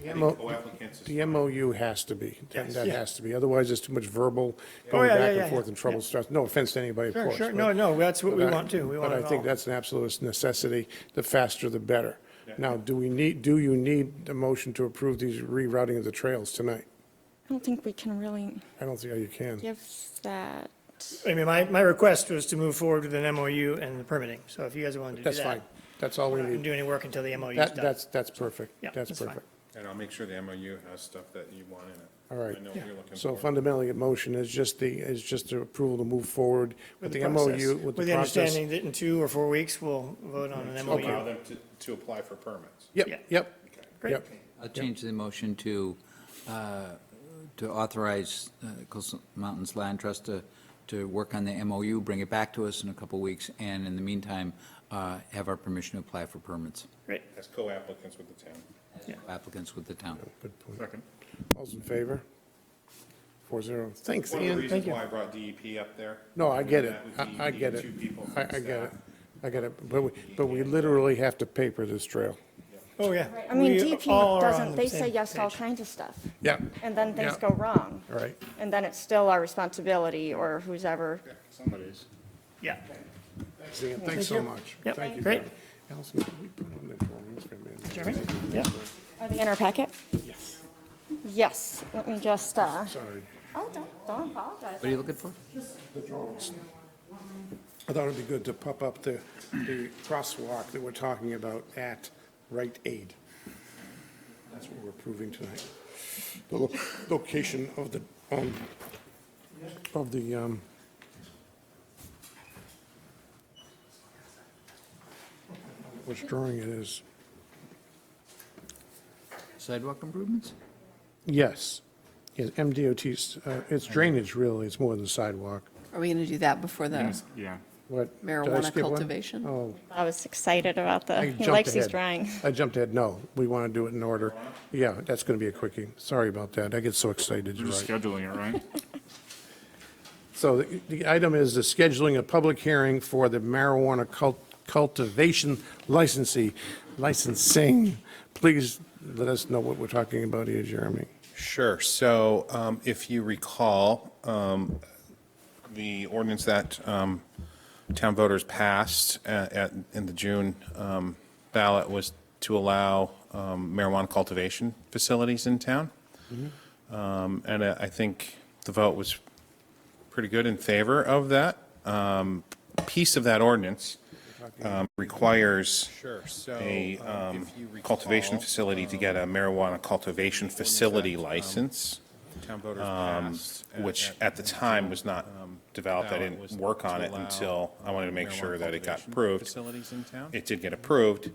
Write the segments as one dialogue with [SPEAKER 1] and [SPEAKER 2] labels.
[SPEAKER 1] The
[SPEAKER 2] any
[SPEAKER 1] MO
[SPEAKER 2] co-applicants. is
[SPEAKER 1] The MOU has to be, that
[SPEAKER 2] Yes.
[SPEAKER 1] that
[SPEAKER 3] Yeah.
[SPEAKER 1] has to be, otherwise there's too much verbal,
[SPEAKER 3] Oh,
[SPEAKER 1] going
[SPEAKER 3] yeah, yeah,
[SPEAKER 1] back
[SPEAKER 3] yeah,
[SPEAKER 1] and forth
[SPEAKER 3] yeah.
[SPEAKER 1] and trouble starts, no offense to anybody, of
[SPEAKER 3] Sure,
[SPEAKER 1] course.
[SPEAKER 3] sure.
[SPEAKER 1] but-
[SPEAKER 3] No, no, that's what we
[SPEAKER 1] but I-
[SPEAKER 3] want too. We want
[SPEAKER 1] But
[SPEAKER 3] it
[SPEAKER 1] I think
[SPEAKER 3] all.
[SPEAKER 1] that's an absolute necessity, the faster the better.
[SPEAKER 2] Yeah.
[SPEAKER 1] Now, do we need, do you need a motion to approve these rerouting of the trails tonight?
[SPEAKER 4] I don't think we can really
[SPEAKER 1] I don't see how you can.
[SPEAKER 4] give that.
[SPEAKER 3] I mean, my, my request was to move forward with an MOU and the permitting. So if you guys wanted to do that.
[SPEAKER 1] That's fine, that's all we
[SPEAKER 3] I Didn't
[SPEAKER 1] need.
[SPEAKER 3] do any work until the MOU is
[SPEAKER 1] That,
[SPEAKER 3] done.
[SPEAKER 1] that's, that's perfect,
[SPEAKER 3] Yeah,
[SPEAKER 1] that's
[SPEAKER 3] that's fine.
[SPEAKER 1] perfect.
[SPEAKER 2] And I'll make sure the MOU has stuff that you want in it.
[SPEAKER 1] All right.
[SPEAKER 2] I know what you're looking for.
[SPEAKER 1] So fundamentally, a motion is just the, is just the approval to move forward with the
[SPEAKER 3] process,
[SPEAKER 1] MOU, with the
[SPEAKER 3] With the
[SPEAKER 1] process.
[SPEAKER 3] understanding that in two or four weeks, we'll vote on an
[SPEAKER 2] To allow
[SPEAKER 3] MOU.
[SPEAKER 2] them to, to apply for permits.
[SPEAKER 3] Yeah.
[SPEAKER 1] Yep, yep,
[SPEAKER 3] Great.
[SPEAKER 1] yep.
[SPEAKER 5] I'll change the motion to, uh, to authorize uh, Coastal Mountains Land Trust to, to work on the MOU, bring it back to us in a couple weeks, and in the meantime, uh, have our permission to apply for permits,
[SPEAKER 3] Great.
[SPEAKER 2] As co-applicants with the town.
[SPEAKER 5] applicants with the town.
[SPEAKER 1] Good point.
[SPEAKER 2] Second.
[SPEAKER 1] All's in favor? Four zero. Thanks,
[SPEAKER 2] One of the
[SPEAKER 1] Ian,
[SPEAKER 2] reasons
[SPEAKER 1] thank you.
[SPEAKER 2] why I brought DEP up there.
[SPEAKER 1] No, I get it.
[SPEAKER 2] That with
[SPEAKER 1] I, I
[SPEAKER 2] DEP,
[SPEAKER 1] get it.
[SPEAKER 2] Two people.
[SPEAKER 1] I, I get it. I get it. But we, but we literally have to paper this trail.
[SPEAKER 3] Oh, yeah.
[SPEAKER 4] I mean,
[SPEAKER 3] We all
[SPEAKER 4] DP
[SPEAKER 3] are
[SPEAKER 4] doesn't,
[SPEAKER 3] on the
[SPEAKER 4] they
[SPEAKER 3] same
[SPEAKER 4] say yes to all
[SPEAKER 3] page.
[SPEAKER 4] kinds of stuff,
[SPEAKER 1] Yeah,
[SPEAKER 4] and then things
[SPEAKER 1] Yeah.
[SPEAKER 4] go wrong.
[SPEAKER 1] all right.
[SPEAKER 4] And then it's still our responsibility or who's ever.
[SPEAKER 2] Somebody's.
[SPEAKER 3] Yeah.
[SPEAKER 1] Thanks, Ian. Thanks so much.
[SPEAKER 3] Yep.
[SPEAKER 1] Thank you.
[SPEAKER 3] Great.
[SPEAKER 1] Allison, can we put on that for me? It's gonna be-
[SPEAKER 3] Jeremy? Yeah.
[SPEAKER 4] Are they in our packet? Yes. Yes, let me just, uh,
[SPEAKER 1] Sorry.
[SPEAKER 4] oh, don't, don't apologize.
[SPEAKER 5] What are you looking for?
[SPEAKER 1] I thought it'd be good to pop up the, the crosswalk that we're talking about at Rite Aid. That's what we're approving tonight. The lo- location of the, um, of the, um, which drawing it is.
[SPEAKER 5] Sidewalk improvements?
[SPEAKER 1] Yes, yes, MDOT's, uh, it's drainage really, it's more than sidewalk.
[SPEAKER 6] Are we going to do that before the,
[SPEAKER 7] Yeah.
[SPEAKER 1] What? did I
[SPEAKER 6] Marijuana
[SPEAKER 1] skip one?
[SPEAKER 6] cultivation?
[SPEAKER 1] Oh,
[SPEAKER 4] I was excited about the,
[SPEAKER 1] I
[SPEAKER 4] he
[SPEAKER 1] jumped
[SPEAKER 4] likes these
[SPEAKER 1] ahead.
[SPEAKER 4] drawings.
[SPEAKER 1] I jumped ahead, no, we want to do it in order. Yeah, that's going to be a quickie, sorry about that, I get so excited,
[SPEAKER 7] We're
[SPEAKER 1] you're
[SPEAKER 7] just
[SPEAKER 1] right.
[SPEAKER 7] scheduling it, right?
[SPEAKER 1] So the- the item is the scheduling of public hearing for the marijuana cult- cultivation licensee, licensing. Please let us know what we're talking about here, Jeremy.
[SPEAKER 2] Sure. So um, if you recall, um, the ordinance that um, town voters passed at- at, in the June um, ballot was to allow um, marijuana cultivation facilities in town. Um, And I I think the vote was pretty good in favor of that. Um, Piece of that ordinance um, requires a um, cultivation facility to get a marijuana cultivation facility license, um, which at the time um, was not developed. I didn't work on it until I wanted to make sure that it got approved. It did get approved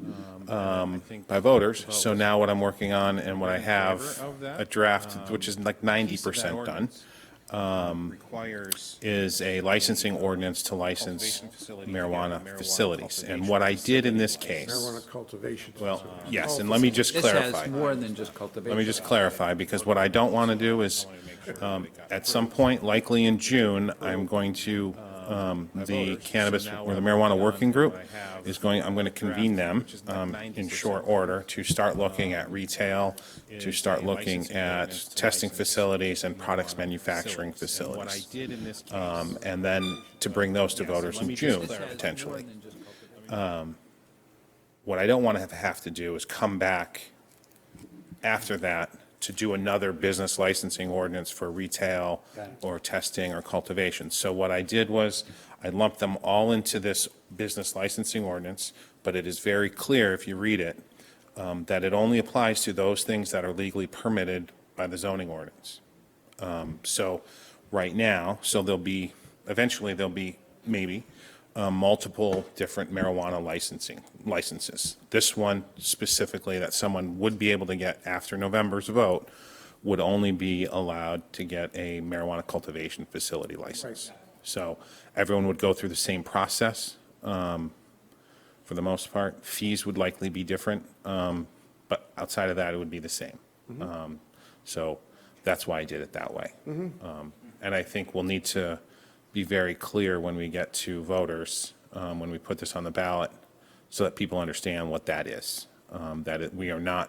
[SPEAKER 2] um, by voters. So now what I'm working on and what I have, a draft, which is like 90% done, um,
[SPEAKER 8] requires
[SPEAKER 2] is a licensing ordinance to license marijuana facilities. And what I did in this case,
[SPEAKER 1] Marijuana cultivation.
[SPEAKER 2] well, yes, and let me just
[SPEAKER 5] Oh, This
[SPEAKER 2] clarify.
[SPEAKER 5] has more than just cultivation.
[SPEAKER 2] Let me just clarify, because what I don't want to do is, um, at some point, likely in June,
[SPEAKER 8] Oh,
[SPEAKER 2] I'm going to, um, the cannabis, or the marijuana working group is going, I'm going to convene them um, in short order to start looking at retail, to start looking at testing facilities and products manufacturing
[SPEAKER 8] And What I
[SPEAKER 2] facilities.
[SPEAKER 8] did in this case,
[SPEAKER 2] Um, And then to bring those to voters in June,
[SPEAKER 5] This has
[SPEAKER 2] potentially.
[SPEAKER 5] more than just cultivation.
[SPEAKER 2] What I don't want to have- have to do is come back after that to do another business licensing ordinance for retail or testing or cultivation. So what I did was I lumped them all into this business licensing ordinance, but it is very clear if you read it, um, that it only applies to those things that are legally permitted by the zoning ordinance. Um, So right now, so there'll be, eventually there'll be, maybe, uh, multiple different marijuana licensing, licenses. This one specifically that someone would be able to get after November's vote would only be allowed to get a marijuana cultivation facility license. So everyone would go through the same process um, for the most part. Fees would likely be different, um, but outside of that, it would be the same. Um, So that's why I did it that way. Um, And I think we'll need to be very clear when we get to voters, um, when we put this on the ballot, so that people understand what that is, um, that it- we are not